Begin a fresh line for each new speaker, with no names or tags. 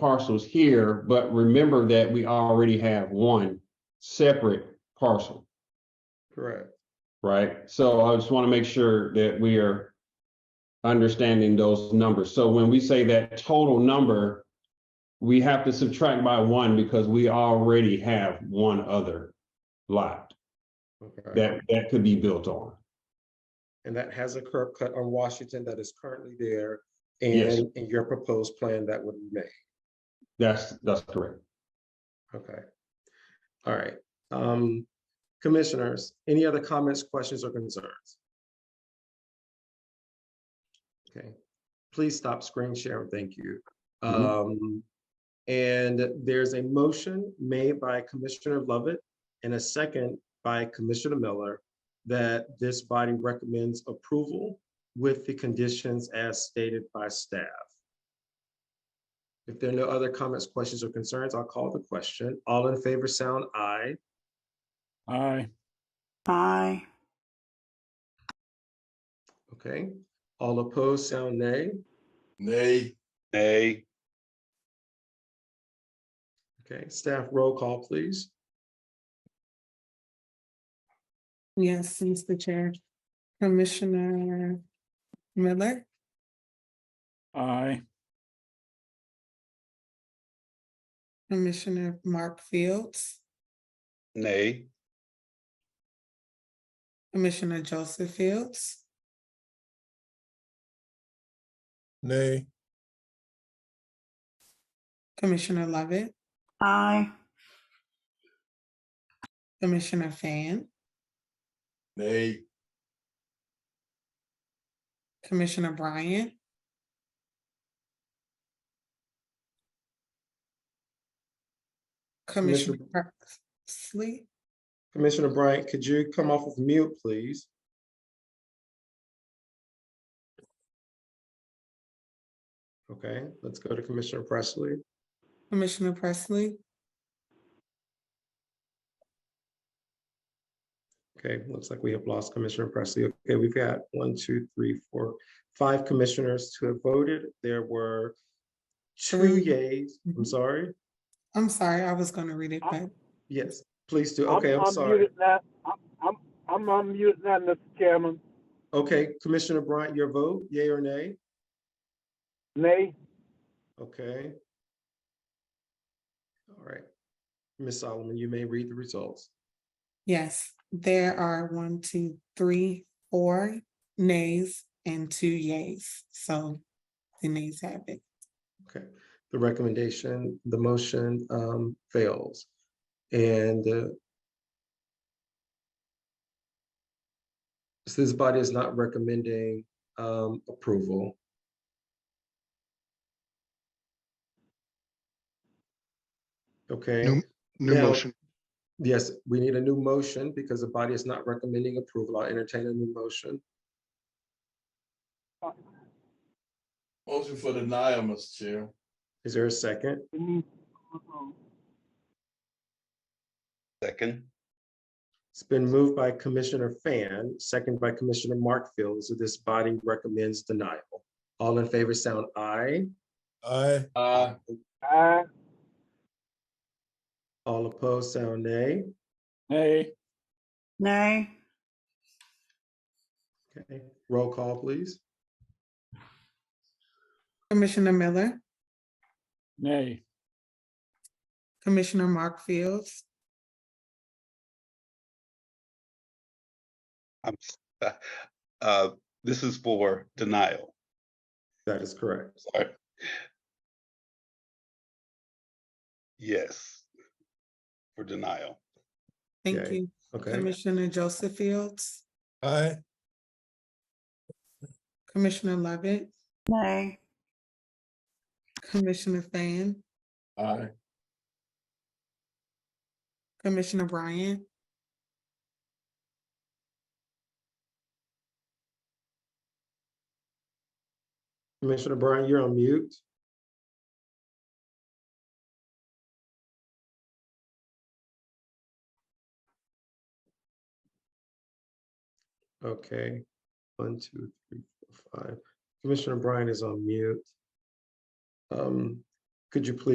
parcels here, but remember that we already have one separate parcel,
correct.
right? So I just want to make sure that we are understanding those numbers. So when we say that total number, we have to subtract by one because we already have one other lot
Okay.
that, that could be built on.
And that has a curb cut on Washington that is currently there
Yes.
and in your proposed plan that would remain.
That's, that's correct.
Okay. All right. Um, commissioners, any other comments, questions, or concerns? Okay, please stop screen sharing. Thank you. Um, and there's a motion made by Commissioner Lovett and a second by Commissioner Miller that this body recommends approval with the conditions as stated by staff. If there are no other comments, questions, or concerns, I'll call the question. All in favor, sound aye.
Aye.
Aye.
Okay. All opposed, sound nay.
Nay.
Nay,
Okay, staff roll call, please.
Yes, Mr. Chair. Commissioner Miller,
Aye.
Commissioner Mark Fields,
nay,
Commissioner Joseph Fields,
Nay,
Commissioner Lovett,
Aye.
Commissioner Fan,
nay,
Commissioner Bryant, Commissioner Presley,
Commissioner Bryant, could you come off of mute, please? Okay, let's go to Commissioner Presley.
Commissioner Presley,
Okay, looks like we have lost Commissioner Presley. Okay, we've got one, two, three, four, five commissioners to have voted. There were two
Three.
yays, I'm
Mhm.
sorry.
I'm sorry, I was gonna read it, but
Yes, please do. Okay, I'm sorry.
unmuted now. I'm, I'm, I'm unmuted now, Mr. Chairman.
Okay, Commissioner Bryant, your vote, yay or nay?
Nay,
Okay. All right. Ms. Solomon, you may read the results.
Yes, there are one, two, three, four nays and two yays. So the nays have it.
Okay, the recommendation, the motion um fails. And uh, so this body is not recommending um approval. Okay.
New- New
Now-
motion,
Yes, we need a new motion because the body is not recommending approval. I'll entertain a new motion.
motion for denial, Mr. Chair.
Is there a second?
we need to approve.
second,
It's been moved by Commissioner Fan, second by Commissioner Mark Fields. So this body recommends denial. All in favor, sound aye.
Aye,
Aye.
aye,
All opposed, sound nay.
Nay.
Nay.
Okay, roll call, please.
Commissioner Miller,
Nay.
Commissioner Mark Fields,
I'm, s- uh, this is for denial,
That is correct.
sorry. Yes, for denial,
thank
Yay.
you.
Okay,
Commissioner Joseph Fields,
aye,
Commissioner Lovett,
Nay.
Commissioner Fan,
Aye.
Commissioner Bryant,
Commissioner Bryant, you're on mute. Okay, one, two, three, four, five. Commissioner Bryant is on mute. Um, Could you please